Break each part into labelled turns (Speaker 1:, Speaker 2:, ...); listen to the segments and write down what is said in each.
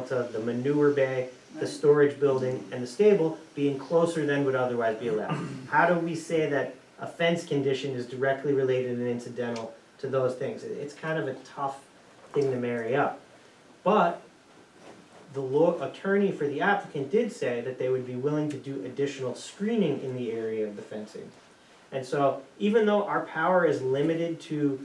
Speaker 1: result of the manure bay, the storage building, and the stable being closer than would otherwise be allowed. How do we say that a fence condition is directly related and incidental to those things? It- It's kind of a tough thing to marry up. But the law attorney for the applicant did say that they would be willing to do additional screening in the area of the fencing. And so even though our power is limited to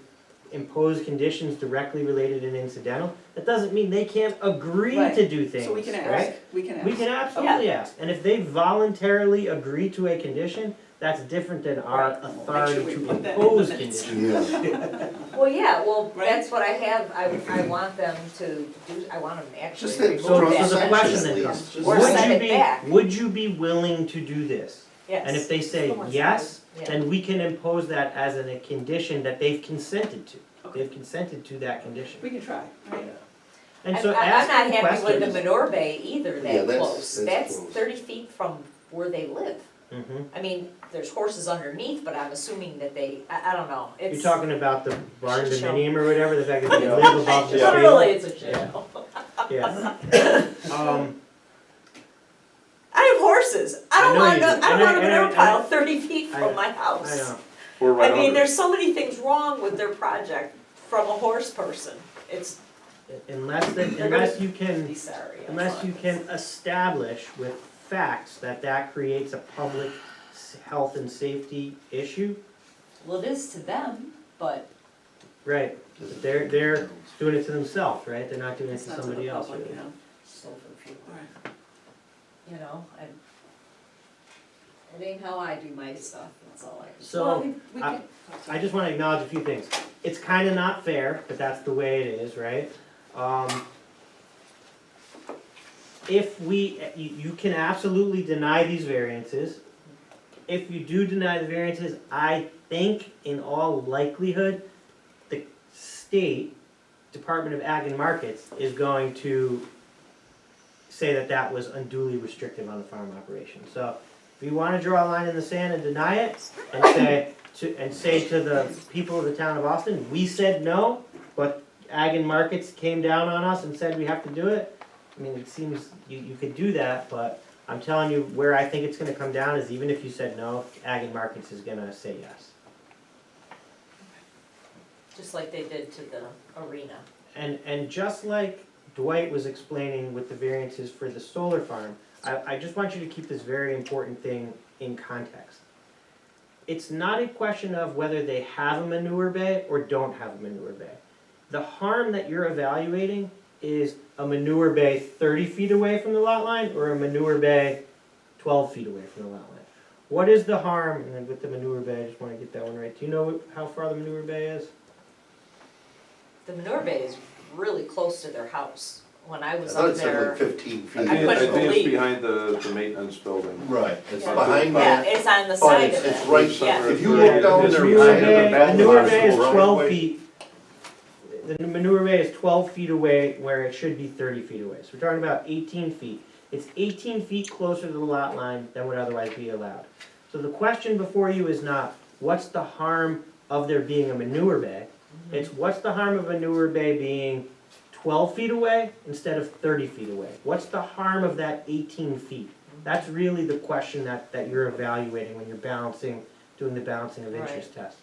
Speaker 1: impose conditions directly related and incidental, that doesn't mean they can't agree
Speaker 2: Right.
Speaker 1: to do things,
Speaker 2: So we can ask,
Speaker 1: right?
Speaker 2: we can ask.
Speaker 1: We can absolutely ask, and if they voluntarily agree to a condition, that's different than our
Speaker 2: Right. We'll make sure
Speaker 1: authority
Speaker 2: we
Speaker 1: to
Speaker 2: put that in the
Speaker 1: impose
Speaker 2: minutes.
Speaker 1: conditions.
Speaker 3: Yeah,
Speaker 4: Well, yeah, well,
Speaker 2: Right?
Speaker 4: that's what I have, I, I want them to do, I want them to actually
Speaker 3: Just that-
Speaker 4: remove
Speaker 1: So, so
Speaker 3: Well,
Speaker 1: the
Speaker 4: that.
Speaker 3: section
Speaker 1: question
Speaker 3: at
Speaker 1: then
Speaker 3: least,
Speaker 1: comes,
Speaker 3: just-
Speaker 4: Or send it
Speaker 1: would you
Speaker 4: back.
Speaker 1: be, would you be willing to do this?
Speaker 4: Yes.
Speaker 1: And if they say
Speaker 4: The ones that-
Speaker 1: yes,
Speaker 4: yeah.
Speaker 1: then we can impose that as an- a condition that they've consented to.
Speaker 2: Okay.
Speaker 1: They've consented to that condition.
Speaker 2: We can try, right?
Speaker 1: And
Speaker 4: I'm-
Speaker 1: so
Speaker 4: I'm-
Speaker 1: ask
Speaker 4: I'm
Speaker 1: them
Speaker 4: not happy with the
Speaker 1: questions.
Speaker 4: manure bay either
Speaker 3: Yeah,
Speaker 4: that
Speaker 3: that's-
Speaker 4: close,
Speaker 3: that's
Speaker 4: that's
Speaker 3: close.
Speaker 4: thirty feet from where they live.
Speaker 1: Mhm.
Speaker 4: I mean, there's horses underneath, but I'm assuming that they, I, I don't know, it's.
Speaker 1: You're talking about the barn
Speaker 4: Should show.
Speaker 1: dominium or whatever, the fact that they
Speaker 5: Yeah.
Speaker 1: live above the
Speaker 5: Yeah.
Speaker 1: street.
Speaker 4: Really, it's a show.
Speaker 1: Yeah. Um,
Speaker 4: I have horses, I
Speaker 1: I
Speaker 4: don't
Speaker 1: know
Speaker 4: wanna,
Speaker 1: you
Speaker 4: know-
Speaker 1: do.
Speaker 4: I
Speaker 1: And
Speaker 4: don't
Speaker 1: I-
Speaker 4: want a
Speaker 1: and I-
Speaker 4: manure
Speaker 1: and I-
Speaker 4: pile thirty feet
Speaker 1: I-
Speaker 4: from my house.
Speaker 1: I know,
Speaker 5: We're right
Speaker 4: I mean,
Speaker 5: under it.
Speaker 4: there's so many things wrong with their project from a horse person. It's,
Speaker 1: unless, that-
Speaker 4: They're gonna-
Speaker 1: unless you can,
Speaker 4: be sorry. I'm
Speaker 1: unless you
Speaker 4: sorry.
Speaker 1: can establish with facts that that creates a public s- health and safety issue,
Speaker 4: Well, it is to them, but
Speaker 1: right? They're, they're doing it to themselves, right? They're not doing it
Speaker 2: It's
Speaker 1: to
Speaker 2: not to
Speaker 1: somebody
Speaker 2: the
Speaker 1: else.
Speaker 2: public,
Speaker 1: really.
Speaker 2: you know.
Speaker 4: so for people,
Speaker 2: All right.
Speaker 4: you know, I. It ain't how I do my stuff, that's all I.
Speaker 1: So.
Speaker 2: Well, we- we
Speaker 1: I-
Speaker 2: can-
Speaker 1: I just wanna acknowledge a few things. It's kinda not fair, but that's the way it is, right? Um, if we, you, you can absolutely deny these variances. If you do deny the variances, I think in all likelihood, the state Department of Ag and Markets is going to say that that was unduly restrictive on the farm operation. So if you wanna draw a line in the sand and deny it, and say to, and say to the people of the town of Austin, we said no, but Ag and Markets came down on us and said we have to do it. I mean, it seems you, you could do that, but I'm telling you, where I think it's gonna come down is even if you said no, Ag and Markets is gonna say yes.
Speaker 4: Just like they did to the arena.
Speaker 1: And, and just like Dwight was explaining with the variances for the solar farm, I, I just want you to keep this very important thing in context. It's not a question of whether they have a manure bay or don't have a manure bay. The harm that you're evaluating is a manure bay thirty feet away from the lot line or a manure bay twelve feet away from the lot line. What is the harm, and then with the manure bay, I just wanna get that one right, do you know how far the manure bay is?
Speaker 4: The manure bay is really close to their house. When I
Speaker 3: I
Speaker 4: was
Speaker 3: thought
Speaker 4: up
Speaker 3: it said like
Speaker 4: there.
Speaker 3: fifteen
Speaker 5: I
Speaker 3: feet.
Speaker 5: think, I
Speaker 4: couldn't
Speaker 5: think it's
Speaker 4: believe-
Speaker 5: behind the, the maintenance building.
Speaker 3: Right, it's
Speaker 4: Yeah.
Speaker 3: behind
Speaker 4: Yeah,
Speaker 3: that,
Speaker 4: it's on the
Speaker 3: but
Speaker 4: side
Speaker 3: Oh, it's,
Speaker 4: of
Speaker 3: it's
Speaker 4: it.
Speaker 3: right,
Speaker 4: yeah.
Speaker 3: if you look down
Speaker 1: The
Speaker 3: there
Speaker 1: manure
Speaker 3: behind
Speaker 1: bay,
Speaker 3: the
Speaker 1: the
Speaker 3: back
Speaker 1: manure
Speaker 3: of
Speaker 1: bay is
Speaker 3: the
Speaker 1: twelve
Speaker 3: right
Speaker 1: feet. The manure bay is twelve feet away where it should be thirty feet away, so we're talking about eighteen feet. It's eighteen feet closer to the lot line than would otherwise be allowed. So the question before you is not, what's the harm of there being a manure bay?
Speaker 4: Mm-hmm.
Speaker 1: It's what's the harm of a manure bay being twelve feet away instead of thirty feet away? What's the harm of that eighteen feet?
Speaker 4: Mm-hmm.
Speaker 1: That's really the question that, that you're evaluating when you're balancing, doing the balancing of interest test.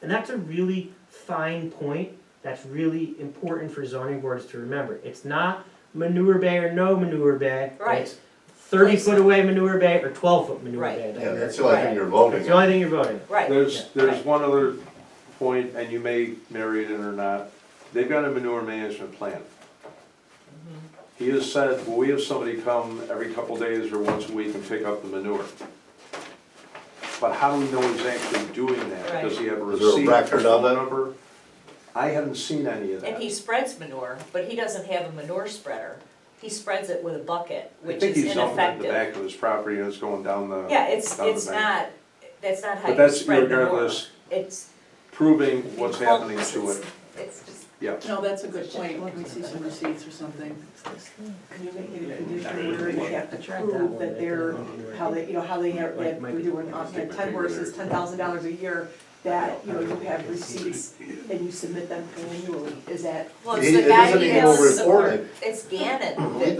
Speaker 1: And that's a really fine point, that's really important for zoning boards to remember. It's not manure bay or no manure bay.
Speaker 4: Right.
Speaker 1: It's thirty foot away manure bay or twelve foot manure
Speaker 4: Right.
Speaker 1: bay. that
Speaker 3: Yeah,
Speaker 1: you're-
Speaker 3: that's the only thing you're voting
Speaker 1: It's the
Speaker 3: on.
Speaker 1: only thing you're voting on.
Speaker 4: Right,
Speaker 5: There's, there's one other point, and you may marry it in or not, they've got a manure management plan.
Speaker 4: Mm-hmm.
Speaker 5: He has said, well, we have somebody come every couple days or once a week and pick up the manure. But how do we know he's actually doing that? Does he have a
Speaker 3: Is there a
Speaker 5: receipt,
Speaker 3: record of
Speaker 5: phone
Speaker 3: it?
Speaker 5: number? I haven't seen any of that.
Speaker 4: and he spreads manure, but he doesn't have a manure spreader. He spreads it with a bucket,
Speaker 5: I
Speaker 4: which
Speaker 5: think
Speaker 4: is
Speaker 5: he's dumping it in
Speaker 4: ineffective.
Speaker 5: the back of his property and it's going down the.
Speaker 4: Yeah, it's,
Speaker 5: down the
Speaker 4: it's
Speaker 5: bank.
Speaker 4: not, that's not how
Speaker 5: But
Speaker 4: you
Speaker 5: that's
Speaker 4: spread manure.
Speaker 5: irregardless,
Speaker 4: It's.
Speaker 5: proving what's happening to
Speaker 4: it's-
Speaker 5: it,
Speaker 4: It's just.
Speaker 5: yeah.
Speaker 2: No, that's a good point, can we see some receipts or something? Can you make it a condition where you have to prove that they're, how they, you know, how they have, that we're doing, uh, that ten horses, ten thousand dollars a year, that, you know, you have receipts and you submit them annually, is that
Speaker 4: Well,
Speaker 3: He-
Speaker 4: it's
Speaker 3: it
Speaker 4: the guy
Speaker 3: doesn't
Speaker 4: he
Speaker 3: even
Speaker 4: has
Speaker 3: report
Speaker 4: support,
Speaker 3: it.
Speaker 4: it's Gannon
Speaker 3: He
Speaker 4: that